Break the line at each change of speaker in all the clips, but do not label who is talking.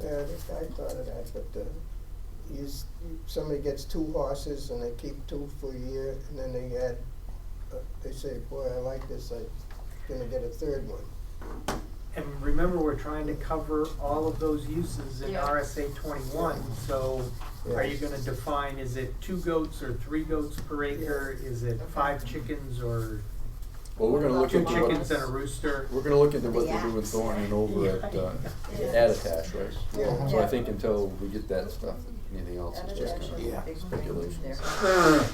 Yeah, I think I thought of that, but, uh, you, s- you- somebody gets two horses and they keep two for a year, and then they add, uh, they say, boy, I like this, I'm gonna get a third one.
And remember, we're trying to cover all of those uses in
Yeah.
RSA twenty-one, so are you
Yes.
gonna define, is it two goats or three goats per acre? Is it five chickens or
Well, we're gonna look
two
into what.
chickens and a rooster?
We're gonna look into what they're doing thorn and over at, uh,
Yeah.
Attitash, right?
Yeah.
So I think until we get that stuff, anything else is just
Attitash
gonna
is
be
a big thing
speculation.
there.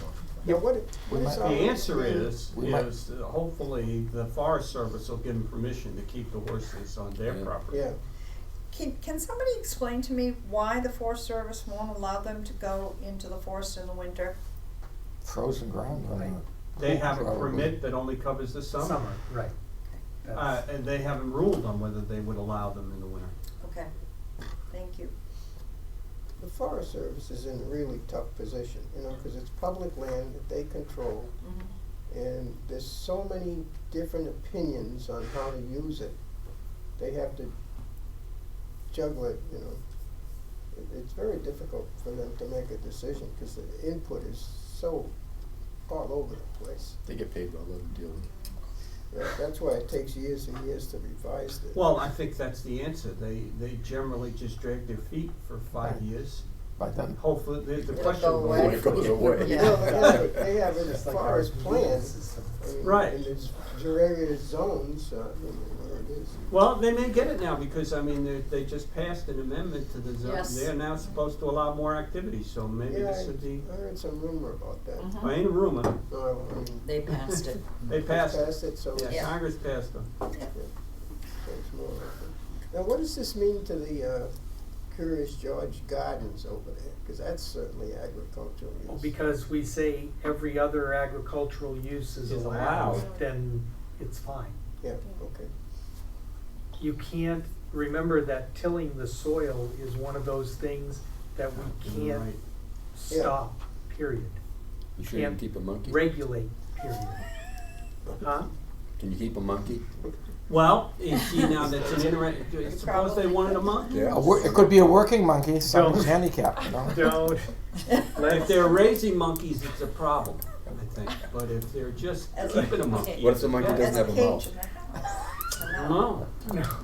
Yeah, what, it- what is
The
our?
answer is,
We might-
is that hopefully the Forest Service will give them permission to keep the horses on their
Yeah.
property.
Yeah,
Can, can somebody explain to me why the Forest Service won't allow them to go into the forest in the winter?
Frozen ground on
Right.
the,
They have a
Probably.
permit that only covers the summer.
Summer, right.
Uh,
That's-
and they haven't ruled on whether they would allow them in the winter.
Okay, thank you.
the Forest Service is in a really tough position, you know, cause it's public land that they control,
Mhm.
and there's so many different opinions on how to use it. They have to juggle it, you know. It, it's very difficult for them to make a decision because the input is so all over the place.
They get paid by them deal with it.
That, that's why it takes years and years to revise this.
Well, I think that's the answer. They, they generally just drag their feet for five
Right.
years.
by then,
Oh.
Hopefully, the, the
It'll
question.
go
will
away.
When it goes away.
Yeah.
Well, they have, they have in as
Just like
far
our
as plans,
system.
I mean,
Right.
in its gerarious zones, uh, I mean, where it is.
Well, they may get it now because, I mean, they, they just passed an amendment to the zone.
Yes.
They are now supposed to allow more activity, so maybe
Yeah,
this would be,
I heard some rumor about that.
Mhm.
I ain't a rumor.
No, I mean,
They passed it.
They passed it.
Pass it, so.
Yeah,
Yeah.
Congress passed them.
There's more of them. Now, what does this mean to the uh, Curious George Gardens over there? Because that's certainly agricultural
Oh,
use.
Well, because we say every other agricultural use is
Is
allowed,
allowed.
then it's fine.
Yeah, okay.
you can't, remember that tilling the soil is one of those things that we can't
Right.
stop, period.
You sure you can
Can't
keep a monkey?
Regulate, period. Huh?
Can you keep a monkey?
Well, you see, now that's an interesting, suppose they wanted a monkey.
a wor- it could be a working monkey, someone's
Don't.
handicapped, you know?
Don't,
If they're raising monkeys, it's a problem, I think, but if they're just
As a-
keeping a monkey.
What if the monkey
it's okay.
doesn't have a mouth?
No,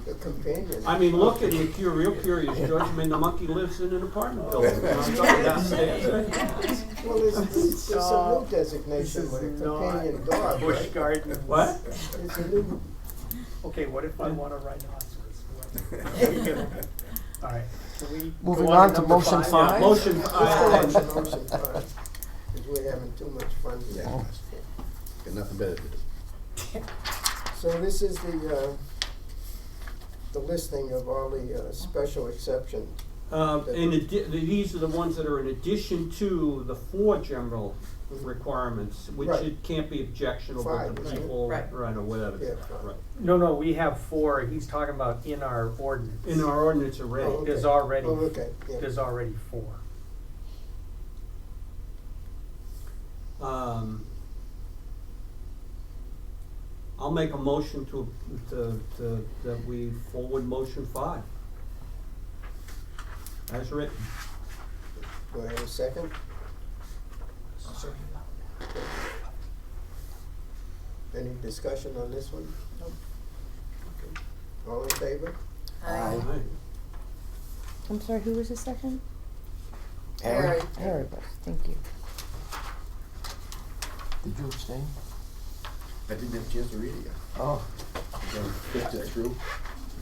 The companion.
I mean, look at it, you're real curious, George, I mean, the monkey lives in an apartment building, you know, it's up and downstairs.
Well, there's, there's there's a new
Stop. this
designation
is
with a
not
companion dog,
bush
right?
gardens.
What?
There's a new,
Okay, what if I want a rhinoceros? All right, can we? go
Moving on to
number
motion
Yeah,
five?
motion, uh,
it's called an ocean farm, because we're having too much fun with
Oh.
that.
Yeah. Got nothing better to do.
So this is the, uh, the listing of all the uh, special exceptions.
Um, in addi- these are the ones that are in addition to the four general requirements, which
Right.
it can't be objectionable to
Five, isn't it?
people,
Right.
right, or whatever.
Yeah, five.
Right.
No, no, we have four, he's talking about in our ordinance.
In our ordinance already.
Oh,
There's
okay.
already,
Oh, okay, yeah.
there's already four.
Um, I'll make a motion to, to, to, that we forward motion five. As written.
Do I have a second? Any discussion on this one? No. All in favor?
Hi.
Aye.
I'm sorry, who was the second?
Harry,
Harry was, thank you.
did you abstain?
I didn't have a chance to read it yet.
Oh,
So I Flipped it through.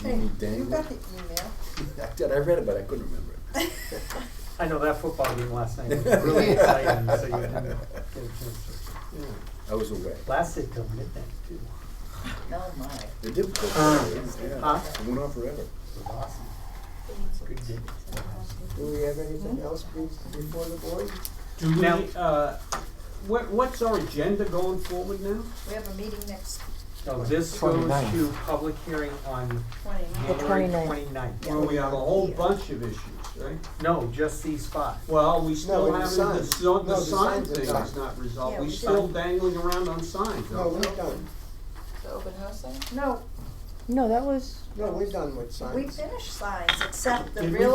Hey,
You
you
dangled.
got the email.
I did, I read it, but I couldn't remember it.
I know that football game last night was really exciting, so you didn't get a chance to.
I was away.
Lasted till midnight too.
Oh, my.
The difficult
Uh,
part is, yeah,
huh?
it went on forever.
Good game.
Do we have anything else be- before the board?
Do we,
Now-
uh, what, what's our agenda going forward now?
We have a meeting next
No, this goes
29th.
to public hearing on
twenty
The
January
29th.
twenty-ninth.
Where we have a whole bunch of issues, right?
No, just these five.
Well, we still
we
haven't, the,
signed.
so-
No,
the
the
sign
signs are
thing
signed.
is not resolved,
Yeah,
we
we
still
signed.
dangling around on signs,
No,
aren't we?
we're done.
The open house thing? No,
No, that was
No, we're done with signs.
we finished signs, except the
Did we
real